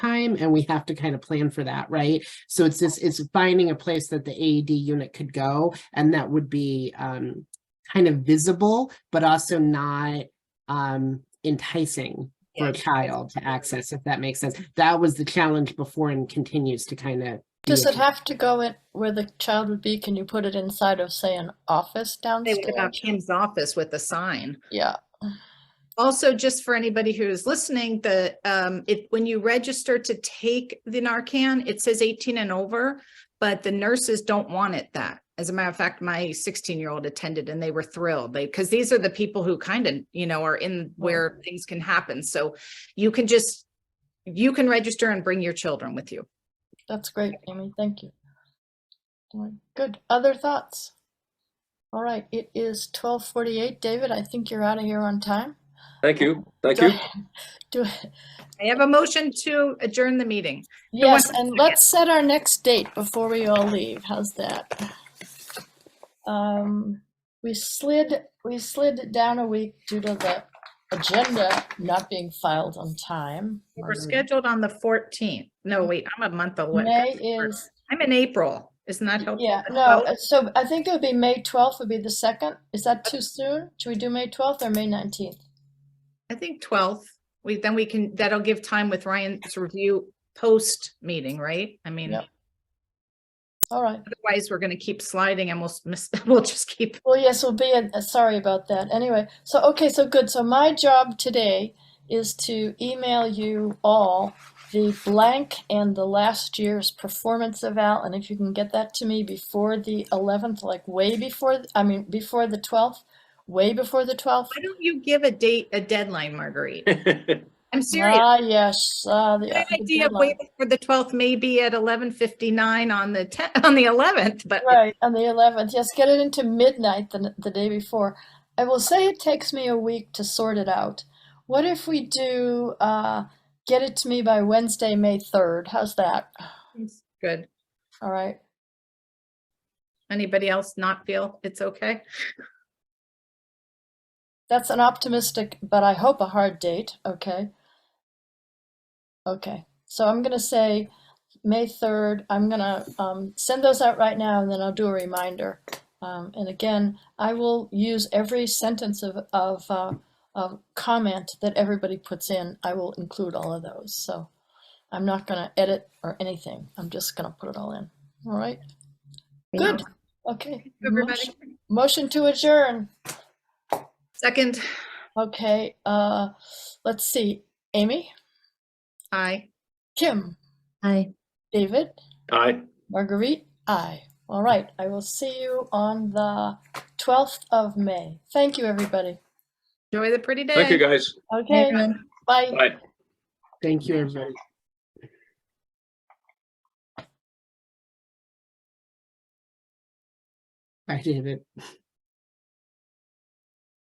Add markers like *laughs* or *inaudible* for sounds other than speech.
time and we have to kind of plan for that, right? So it's this, it's finding a place that the AED unit could go and that would be um kind of visible, but also not um enticing for a Yeah. child to access, if that makes sense. That was the challenge before and continues to kind of. Does it have to go in where the child would be? Can you put it inside of, say, an office Say what about downstairs? Kim's office with a sign? Yeah, Also, just for anybody who is listening, the, um, it, when you register to take the Narcan, it says eighteen and over, but the nurses don't want it that. As a matter of fact, my sixteen-year-old attended and they were thrilled. They, because these are the people who kind of, you know, are in where things can happen. So you can just, you can register and bring your children with you. that's great, Amy. Thank you. All right, Good. Other thoughts? All right, it is 12:48. David, I think you're out of here on time. Thank you, thank Do *laughs* you. I- Do, I- I have a motion to adjourn the meeting. yes, one and let's set our next date before we all leave. How's that? Um, we slid, we slid it down a week due to the agenda not being filed on time. We're Um, scheduled on the fourteenth. No, wait, I'm a month away. Mm. May is, I'm in April. Isn't that helpful? yeah, That's no, about- uh, so I think it would be May 12th would be the second. Is that too soon? Should we do May 12th or May 19th? I think twelfth, we, then we can, that'll give time with Ryan's review post-meeting, right? I mean, Yep. All right. otherwise we're gonna keep sliding and we'll s- miss, *laughs* we'll just keep, Well, yes, we'll be, in- uh, sorry about that. Anyway, so, okay, so good. So my job today is to email you all the blank and the last year's performance eval. And if you can get that to me before the 11th, like way before, th- I mean, before the 12th, way before the 12th. why don't you give a date, a deadline, Marguerite? *laughs* I'm serious. Ah, yes, ah, the. My the idea of deadline. waiting for the twelfth may be at eleven fifty-nine on the ten, *laughs* on the eleventh, but Right, on the eleventh, yes, get it into midnight the, n- the day before. I will say it takes me a week to sort it out. What if we do, uh, get it to me by Wednesday, May third? How's that? it's good. All right, Anybody else not feel it's okay? that's an optimistic, but I hope a hard date, okay? Okay, so I'm gonna say May third, I'm gonna, um, send those out right now and then I'll do a reminder. Um, and again, I will use every sentence of, of, uh, of comment that everybody puts in. I will include all of those, so I'm not gonna edit or anything. I'm just gonna put it all in, all right? Good, okay. Everybody, Motion- Motion to adjourn. second, Okay, uh, let's see. Amy, aye. Kim, Hi. David, Aye. Marguerite, I. All right, I will see you on the 12th of May. Thank you, everybody. Enjoy the pretty day. Thank you, guys. Okay, bye. Bye. Thank you, everybody. I did it.